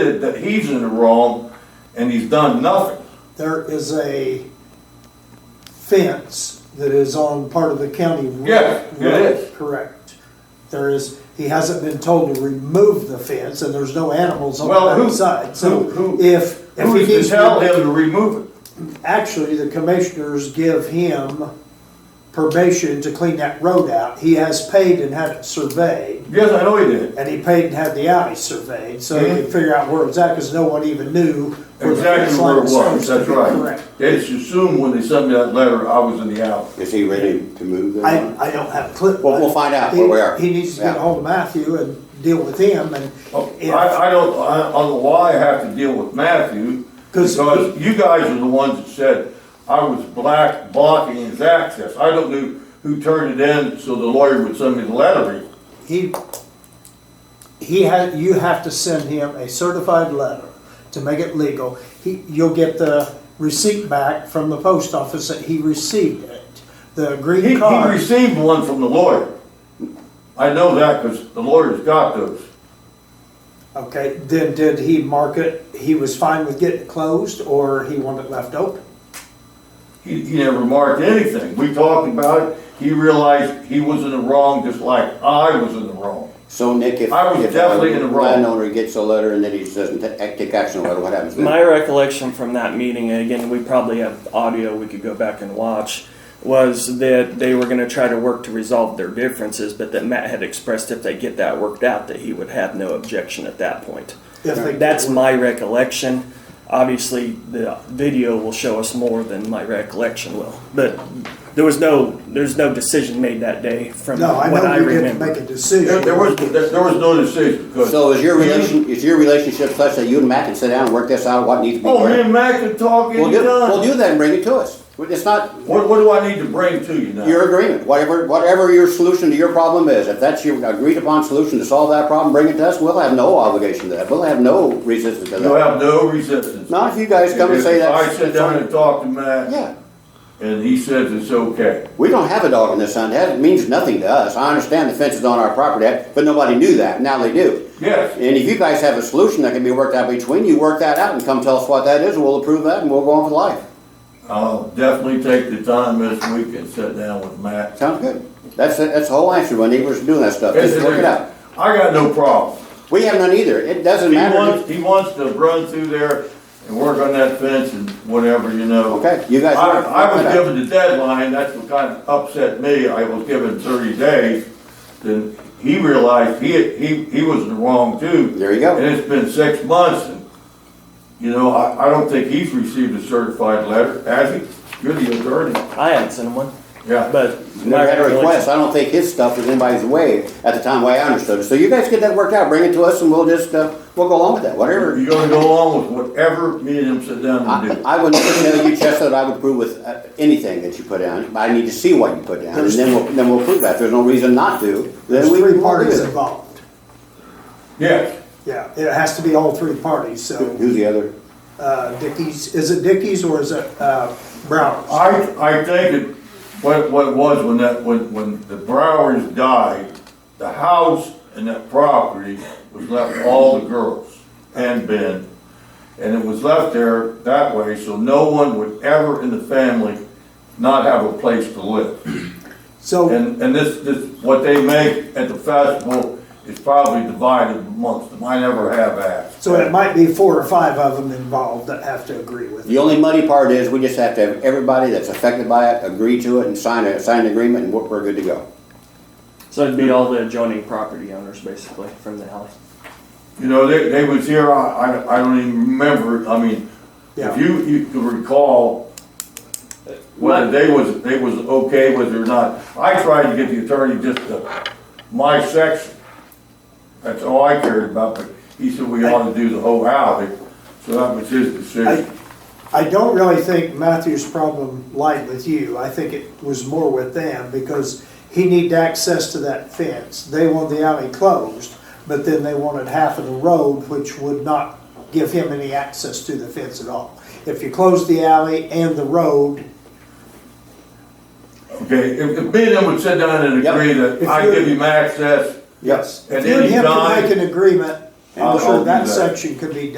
admitted that he's in the wrong and he's done nothing. There is a fence that is on part of the county roof. Yes, it is. Correct. There is, he hasn't been told to remove the fence, and there's no animals on Well, the who- outside, who- so who- if, if Who he is needs to tell to. him to remove it? Actually, the commissioners give him permission to clean that road out. He has paid and had it surveyed, Yes, I know he did. and he paid and had the alley surveyed, so he can figure out where it's at, because no one even knew. where the Mm-hmm. fence Exactly line where it was, supposed to that's be. right. Correct. They just assumed when they sent me that letter, I was in the alley. Is he ready to move then? I, I don't have a clip. Well, we'll find out where we are. He he needs to get Yeah. ahold of Matthew and deal with him and. Oh, I, I don't, I I don't know why I have to deal with Matthew, 'Cause- because you guys are the ones that said I was black blocking his access. I don't know who turned it in, so the lawyer would send me the letter. He, he had, you have to send him a certified letter to make it legal. He, you'll get the receipt back from the post office that he received it, the He, green he card. received one from the lawyer. I know that, because the lawyer's got those. Okay, then did he mark it, he was fine with getting it closed or he wanted it left open? He, he never marked anything. We talked about it. He realized he was in the wrong, just like I was in the wrong. So Nick, if. I was if definitely in the wrong. Landowner gets a letter and then he doesn't ta- take action on it, what happens then? My recollection from that meeting, and again, we probably have audio we could go back and watch, was that they were going to try to work to resolve their differences, but that Matt had expressed if they get that worked out, that he would have no objection at that point. If they- That's my recollection. Obviously, the video will show us more than my recollection will, but there was no, there's no decision made that day from No, I what I know you didn't remember. make a decision. There, there was, there, there was no decision, because. So is your relation, is your relationship such that you and Matt can sit down and work this out, what needs to be Oh, me worked? and Mac can talk We'll any do, we'll time. do that and bring it to us. It's not What, what do I need to bring to you now? your agreement, whatever, whatever your solution to your problem is. If that's your agreed upon solution to solve that problem, bring it to us, we'll have no obligation to that, we'll have no resistance to You that. have no resistance. Not if you guys come and say If that's. I sit down and talk to Matt, Yeah. and he says it's okay. We don't have a dog in this hunt. That means nothing to us. I understand the fence is on our property, but nobody knew that. Now they do. Yes, And if you guys have a solution that can be worked out between you, work that out and come tell us what that is, and we'll approve that and we'll go on with life. I'll definitely take the time this week and sit down with Matt. Sounds good. That's that's the whole answer when neighbors doing that stuff. Just work it out. I got no problem. We have none either. It doesn't He matter. wants, he wants to run through there and work on that fence and whatever, you know. Okay, you guys. I, work- I work was it out. given the deadline, that's what kind of upset me, I was given thirty days, then he realized he, he, he was in the wrong too. There you go. And it's been six months, and, you know, I, I don't think he's received a certified letter, has he? You're the attorney, I haven't seen one, yeah. but. my Never had a recollection- request. I don't think his stuff was anybody's way at the time. Way I understood it. So you guys get that worked out. Bring it to us, and we'll just uh, we'll go along with that. Whatever. You're gonna go along with whatever me and him sit down and do. I I would never tell you, Chester, that I would approve with uh, anything that you put down. I need to see what you put down, and then we'll, then we'll approve that. If there's no reason not to, There's then we three will parties parties. involved. Yes, Yeah, it has to be all three parties, so. Who's the other? uh, Dickies, is it Dickies or is it uh, Browners? I, I think it, what, what it was when that, when, when the Browers died, the house and that property was left all the girls and Ben. And it was left there that way, so no one would ever in the family not have a place to live. So, And, and this, this, what they make at the festival is probably divided amongst them. I never have asked. so it might be four or five of them involved that have to agree with The it. only muddy part is we just have to have everybody that's affected by it agree to it and sign a, sign an agreement, and we're, we're good to go. So it'd be all the adjoining property owners basically from the alley. You know, they, they was here, I, I- I don't even remember, I mean, if Yeah. you, you could recall whether they was, they was okay with it or not. I tried to get the attorney just to, my section, that's all I cared about, but he said we ought to do the whole alley, so that was his I, decision. I don't really think Matthew's problem lied with you. I think it was more with them because he needed access to that fence. They wanted the alley closed, but then they wanted half of the road, which would not give him any access to the fence at all. If you close the alley and the road, Okay, if, if me and him would sit down and Yep. agree that If I you're- give him access, yes, At if you and any him time- can make an agreement, I'm I'll- I'll sure do that that. section could be